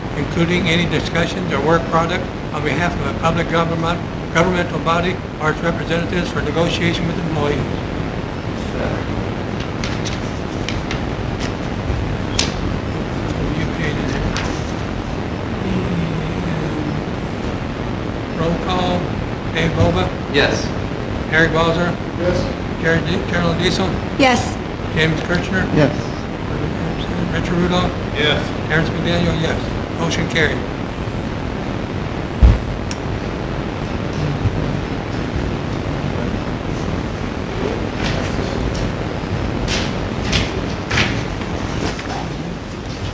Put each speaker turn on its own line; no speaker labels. including any discussions or work product on behalf of a public government, governmental body or its representatives for negotiation with employees. You created it. And Roll call, Dave Boba,
Yes.
Eric Balzer. Yes. Carolyn Diesel,
Yes.
James Kirchner,
Yes.
Richard Rudolph,
Yes.
Terrence McDaniel, yes. Motion carried.